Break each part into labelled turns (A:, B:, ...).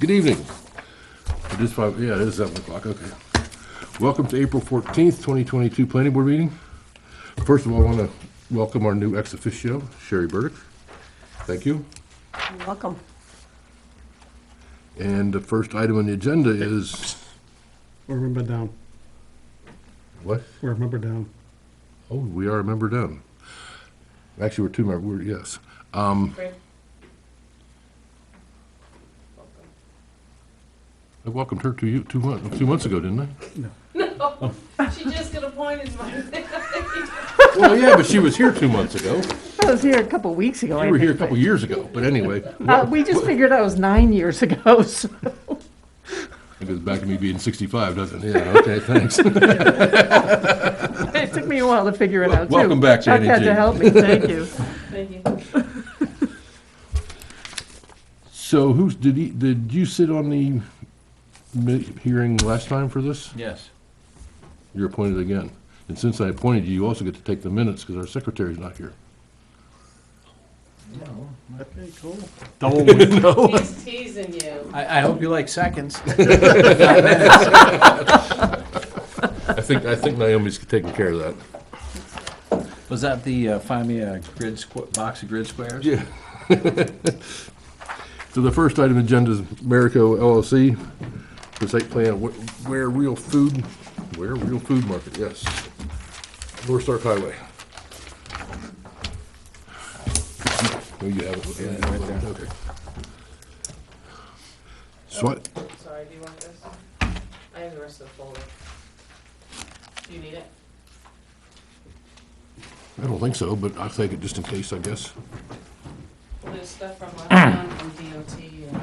A: Good evening. It is five, yeah, it is seven o'clock, okay. Welcome to April fourteenth, twenty twenty-two Planning Board meeting. First of all, I want to welcome our new ex officio, Sherry Burdick. Thank you.
B: You're Welcome.
A: And the first item on the agenda is,
C: We're a member down.
A: what?
C: We're a member down.
A: Oh, we are a member done. Actually, we're two member, we're, yes. Um, I welcomed her to you two months, two months ago, didn't I?
D: She just got appointed by
A: Well, yeah, but she was here two months ago.
B: I was here a couple of weeks ago.
A: You
B: I
A: were here a
B: think,
A: couple years ago, but anyway,
B: but- Uh, we just figured that was nine years ago, so.
A: it goes back to me being 65, doesn't it? Yeah, okay, thanks.
B: It took me a while to figure it out, too.
A: welcome back,
B: Chuck
A: Janie
B: had
A: G.
B: to help me, thank you.
D: Thank you.
A: So who's, did he, did you sit on the mi- hearing last time for this?
E: Yes.
A: You're appointed again. And since I appointed you, you also get to take the minutes because our secretary's not here.
E: Okay, cool.
D: He's teasing you.
E: I, I hope you like seconds.
A: I think, I think Naomi's taking care of that.
E: Was that the, uh, find me a grid squ- box of grid squares?
A: Yeah. So the first item on the agenda is Marico LLC, the site plan, wh- where real food, where real food market, yes. North Stark Highway. Oh, you have it.
E: Yeah, right there.
A: Okay. So, I-
D: Sorry, do you want this? I have the rest of the folder. Do you need it?
A: I don't think so, but I'll take it just in case, I guess.
D: There's stuff from last time from DOT and.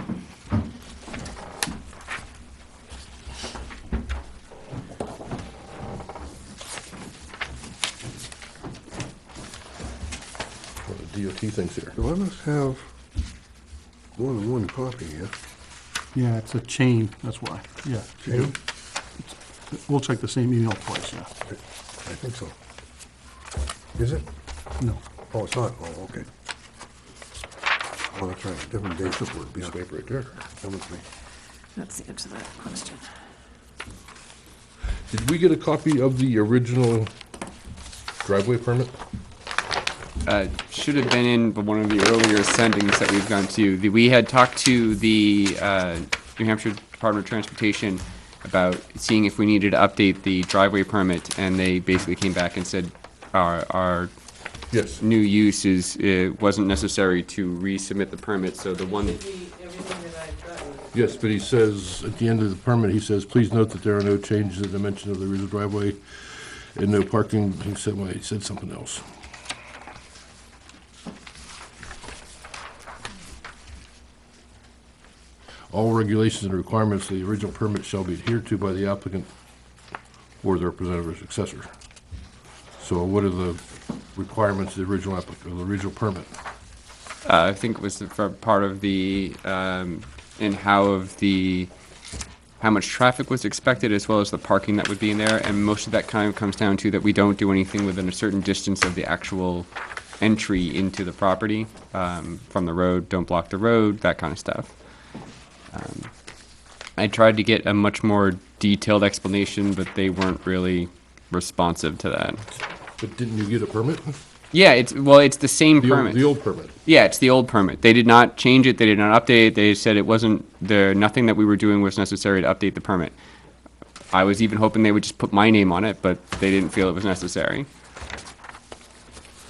A: What the DOT thinks here.
F: Do I must have more than one copy here?
C: Yeah, it's a chain, that's why, yeah.
F: Yeah,
C: We'll check the same email twice, yeah.
F: I think so. Is it?
C: No.
F: Oh, it's not, oh, okay. Oh, that's right, different date this would be.
A: Piece of paper right there.
F: Come with me.
B: That's the answer to that question.
A: Did we get a copy of the original driveway permit?
G: uh, should have been in one of the earlier sendings that we've gone to. The- We had talked to the uh, New Hampshire Department of Transportation about seeing if we needed to update the driveway permit, and they basically came back and said our, our
A: Yes.
G: new use is, it wasn't necessary to resubmit the permit, so the one,
D: Should be everything that I've gotten.
A: Yes, but he says, at the end of the permit, he says, please note that there are no changes in the dimension of the rear driveway and no parking, he said, well, he said something else. All regulations and requirements of the original permit shall be adhered to by the applicant or their representative or successor. So what are the requirements of the original applicant, or the original permit?
G: uh, I think it was the- for part of the, um, in how of the, how much traffic was expected, as well as the parking that would be in there, and most of that kind of comes down to that we don't do anything within a certain distance of the actual entry into the property, um, from the road, don't block the road, that kind of stuff. Um, I tried to get a much more detailed explanation, but they weren't really responsive to that.
A: But didn't you get a permit?
G: Yeah, it's, well, it's the same
A: The old-
G: permit.
A: The old permit.
G: Yeah, it's the old permit. They did not change it. They did not update it. They said it wasn't there. Nothing that we were doing was necessary to update the permit. I was even hoping they would just put my name on it, but they didn't feel it was necessary.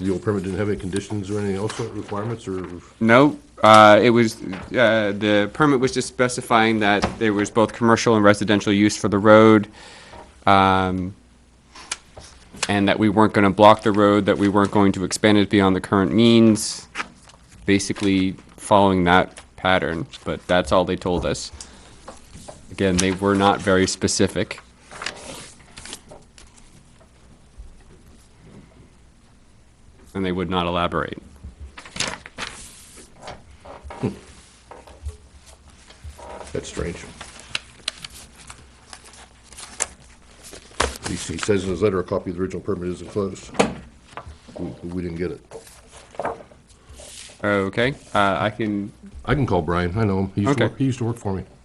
A: The old permit didn't have any conditions or anything else, uh, requirements, or,
G: No, uh, it was uh, the permit was just specifying that there was both commercial and residential use for the road, um, and that we weren't going to block the road. That we weren't going to expand it beyond the current means. Basically, following that pattern, but that's all they told us. Again, they were not very specific. And they would not elaborate.
A: that's strange. He he says in his letter, a copy of the original permit is enclosed. We we didn't get it.
G: Okay, uh, I can
A: uh, I can call Brian, I know him, he used to
G: Okay.
A: work, he used to work for me.